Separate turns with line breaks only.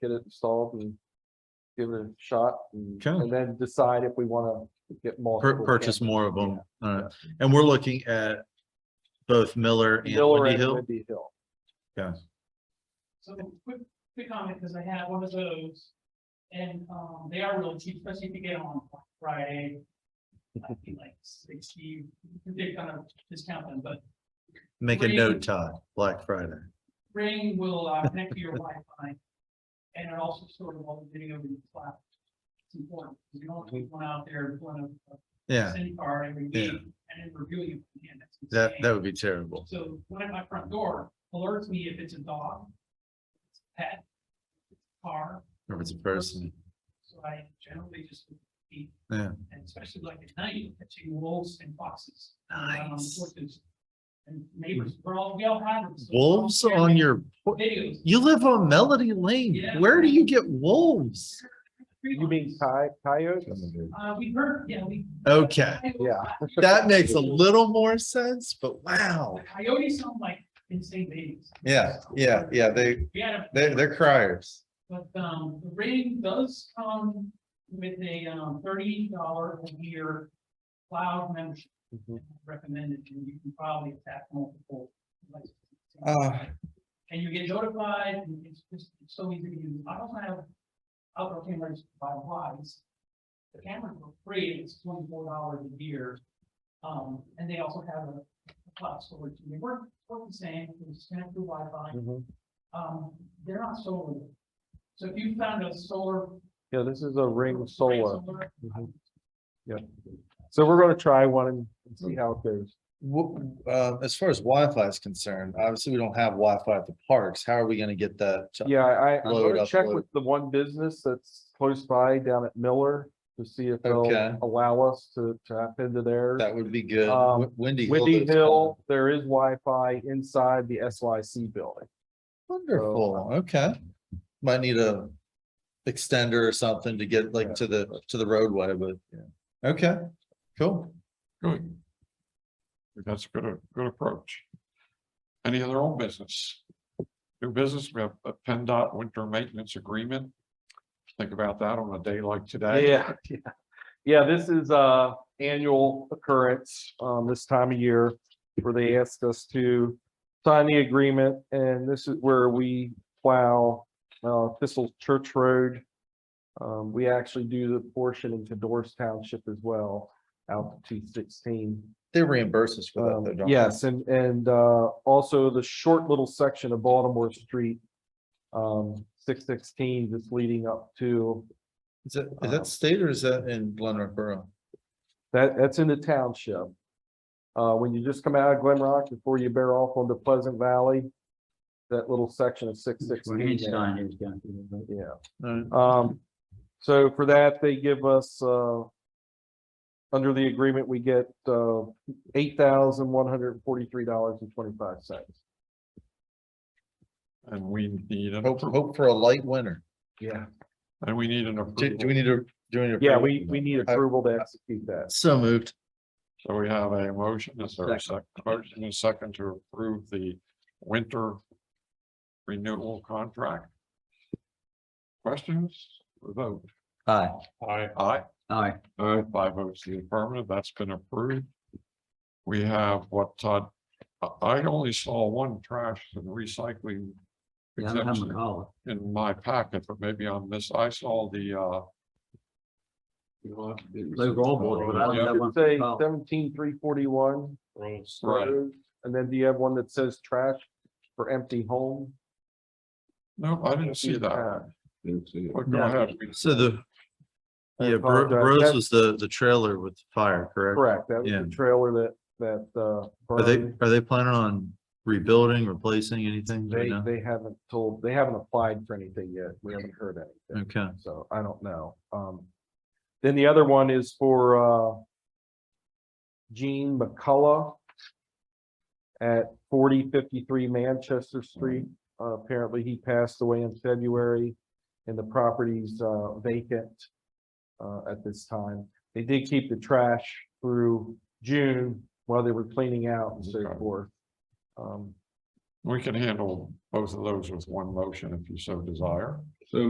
get it installed and give it a shot and,
Okay.
and then decide if we want to get
pur-
multiple.
purchase
cameras.
more of them. Uh, and we're looking at both Miller and
Miller
Windy
and
Hill.
Windy Hill.
So quick, quick comment, because I had one of those. And um, they are really cheap, especially if you get on Friday. I think like sixty, they're kind of discount them, but
Make a
Green.
note, Todd, Black Friday.
Ring will uh, connect to your Wi-Fi. And it also sort of all the video in the cloud. It's important, because you don't want to put one out there, one of a
Yeah,
SIM card every
Yeah.
week, and then reviewing it. again. That's
that,
insane.
that would be terrible.
So one at my front door alerts me if it's a dog. it's a Pet. Car,
Or if it's a person.
so I generally just. keep-
Yeah.
And especially like at night, catching wolves and foxes. um,
Nice.
horses, And neighbors, we're all, we all have. them, so we're all
Wolves
sharing
on your, por-
Videos.
you live on Melody Lane.
Yeah.
Where do you get wolves?
tree
You mean
lines.
coy- coyotes?
Uh, we heard, yeah, we.
Okay,
Yeah.
Oh, that makes a little more sense, but wow.
The Coyotes sound like insane babies.
Yeah, yeah, yeah, they-
We had a.
They're, they're criers.
But um, the ring does come with a um thirty dollar a year cloud membership
Mhm.
recommended, and you can probably attack multiple. devices.
Uh,
And you get notified, and it's just, it's so easy to use, I don't have outdoor cameras by wise. The cameras were free, and it's twenty-four dollars a year, um, and they also have a a cloud storage, and they work, work the same, you just connect through Wi-Fi.
Mhm.
Um, they're not solar. So if you found a solar.
Yeah, this is a ring
Ring
solar. Mhm. Yeah. So we're going to try one and and see how it goes.
w- uh, as far as Wi-Fi is concerned, obviously we don't have Wi-Fi at the parks. How are we gonna get that? to-
Yeah, I, I'm
Load
gonna
up,
check
load.
with the one business that's close by down at Miller to see if they'll
Okay.
allow us to tap into theirs.
That would be good.
Um,
Wi- Windy.
Windy
is fun.
Hill, there is Wi-Fi inside the SYC building.
Wonderful,
uh,
okay. Might need a extender or something to get like to the, to the roadway, but, okay, cool.
Good. That's a good, good approach. Any other old business? New business, we have a PennDOT winter maintenance agreement. Think about that on a day like today.
Yeah, yeah. Yeah, this is a annual occurrence, um, this time of year where they asked us to sign the agreement and this is where we plow, uh, Thistle Church Road. Um, we actually do the portion into Doris Township as well, out to two sixteen.
They reimburse us for Oh, that.
Um,
though, don't they?
Yes, and, and, uh, also the short little section of Baltimore Street, um, six sixteen, that's leading up to,
Is that, is
Uh-huh.
that state or is that in Glenrock Borough?
that, that's in the township. Uh, when you just come out of Glen Rock before you bear off onto Pleasant Valley, that little section of six sixteen. Yeah.
Alright.
Um, so for that, they give us, uh, under the agreement, we get, uh, eight thousand one hundred forty-three dollars and twenty-five cents.
And we need, an
Hope,
appro-
hope for a light winter.
Yeah.
and we need an
Do, do
approval.
we need to, do we need? to
Yeah,
approve
we,
it?
we need
I-
approval to execute that.
So moved.
So we have a motion, is there a second, motion and a second to approve the winter renewal contract? Questions, vote?
Aye.
Aye. Aye.
Aye.
Uh, five votes to the affirmative, that's been approved. We have what Todd, I, I only saw one trash and recycling.
Yeah, I'm having a
exemption
call.
In my packet, but maybe on this, I saw the, uh. you know, the-
Overall board, but I don't
Yeah,
have one.
Should
for
Say
call.
seventeen three forty-one.
Right,
And then do you have one that says trash for empty home?
no, I didn't see that.
Uh,
But Go ahead,
So the,
I
yeah, Bro-
apologize.
Bros
That-
was the, the trailer with the fire, correct?
Correct, that was
Yeah.
the trailer that, that, uh.
Are they,
burned.
are they planning on rebuilding, replacing anything? Do we
They,
know?
they haven't told, they haven't applied for anything yet. We haven't heard anything,
Okay,
so I don't know. Um, then the other one is for, uh, Gene McCullough at forty fifty-three Manchester Street. Uh, apparently he passed away in February and the property's, uh, vacant, uh, at this time. They did keep the trash through June while they were cleaning out and so
Okay.
forth. Um,
we can handle both of those with one motion if you so desire.